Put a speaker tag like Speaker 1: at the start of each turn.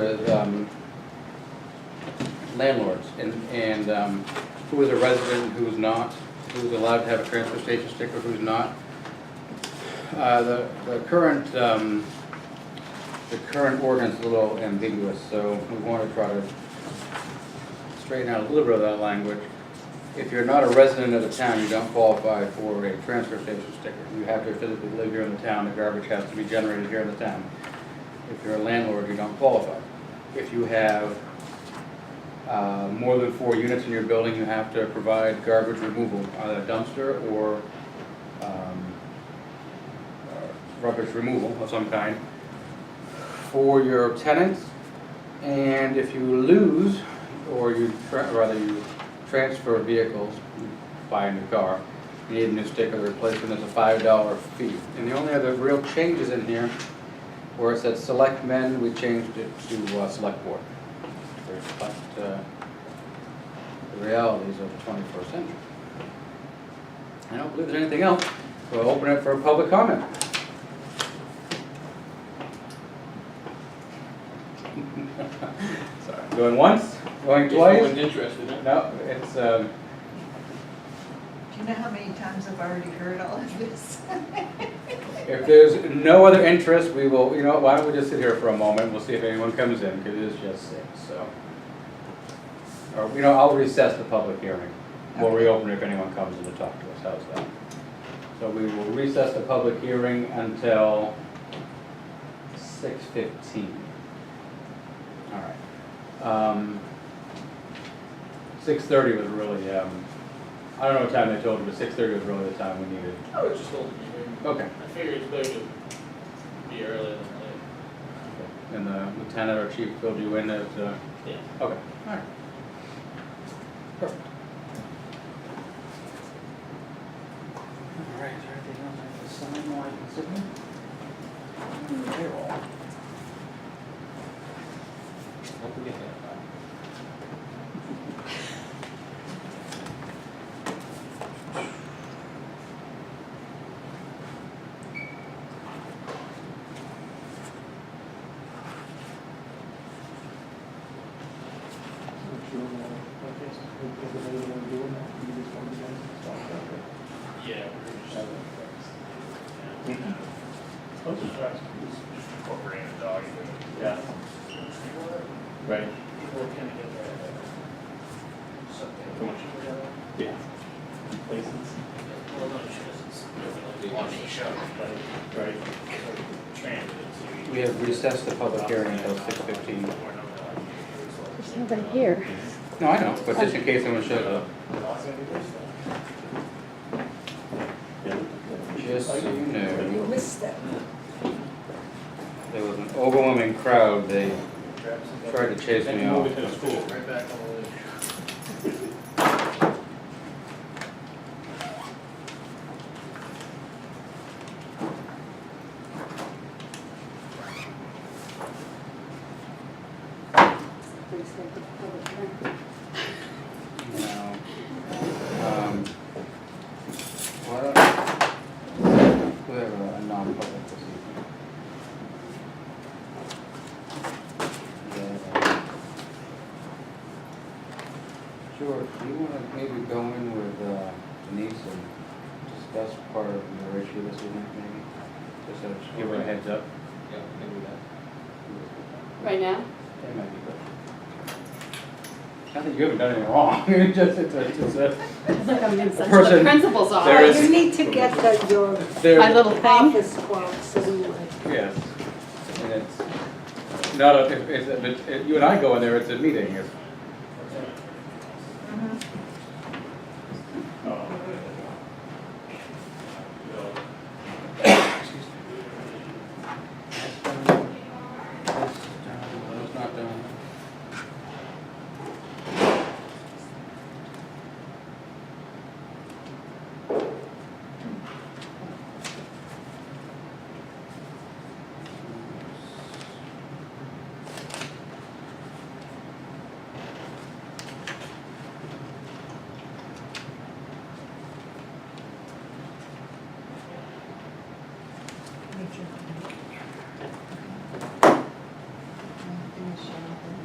Speaker 1: with um, landlords and, and um, who is a resident, who's not, who's allowed to have a transfer station sticker, who's not. Uh, The, the current, um, the current ordinance is a little ambiguous, so we want to try to straighten out a little bit of that language. If you're not a resident of the town, you don't qualify for a transfer station sticker. You have to physically live here in the town, the garbage has to be generated here in the town. If you're a landlord, you don't qualify. If you have uh, more than four units in your building, you have to provide garbage removal, either dumpster or um, uh, rubbish removal of some kind for your tenants. And if you lose, or you, tra- rather you transfer vehicles, you buy a new car, you need a new sticker replacement, there's a five dollar fee. And the only other real changes in here, where it said select men, we changed it to uh, select board. To reflect uh, the realities of the twenty-first century. I don't believe there's anything else, we'll open it for public comment. Sorry, going once, going
Speaker 2: If
Speaker 1: twice?
Speaker 2: someone's interested in it.
Speaker 1: No, it's, um,
Speaker 3: Do you know how many times I've already heard all of this?
Speaker 1: if there's no other interest, we will, you know, why don't we just sit here for a moment, we'll see if anyone comes in, because it is just six, so. Or, you know, I'll recess the public hearing, we'll
Speaker 3: Okay.
Speaker 1: reopen if anyone comes in to talk to us, how's that? So we will recess the public hearing until six fifteen. All right. Um, six thirty was really, um, I don't know what time they told you, but six thirty was really the time we needed.
Speaker 2: I was just holding you here.
Speaker 1: Okay.
Speaker 2: I figured it's better to be early than late.
Speaker 1: And the lieutenant or chief filled you in as, uh,
Speaker 2: Yeah.
Speaker 1: okay, alright. Perfect. Alright, is there anything else I can sign while I can sit here? Payroll.
Speaker 2: Don't forget that. Yeah. Yeah.
Speaker 4: Right.
Speaker 2: People are kinda get that.
Speaker 4: Too much. Yeah. Places.
Speaker 2: Well, no, she doesn't. On the show.
Speaker 4: Right.
Speaker 2: Transit.
Speaker 1: We have recessed the public hearing until six fifteen.
Speaker 5: There's nobody here.
Speaker 1: No, I know, but just in case anyone shows up.
Speaker 4: Yeah.
Speaker 1: Just so you know,
Speaker 3: You missed that.
Speaker 1: there was an overwhelming crowd, they tried to chase me off.
Speaker 4: to the school.
Speaker 2: Right back on the list.
Speaker 1: No. Um, Why don't, we have a a non-public this evening. Yeah. George, do you wanna maybe go in with uh, Denise and discuss part of your issue this evening, maybe? Just so she give her a heads up.
Speaker 2: Yeah, maybe that.
Speaker 5: Right now?
Speaker 1: That might be good. Not that you haven't done anything wrong, it's just, it's a, it's a.
Speaker 5: It's like I'm in such
Speaker 1: person-
Speaker 5: a principal's
Speaker 1: there
Speaker 5: office.
Speaker 1: is-
Speaker 6: You need to get the, your
Speaker 1: There-
Speaker 5: My little thing.
Speaker 6: office quote, so we would.
Speaker 1: Yes, and it's not a, if, if, if, it- you and I go in there, it's a meeting, it's
Speaker 3: Uh-huh.
Speaker 2: Oh.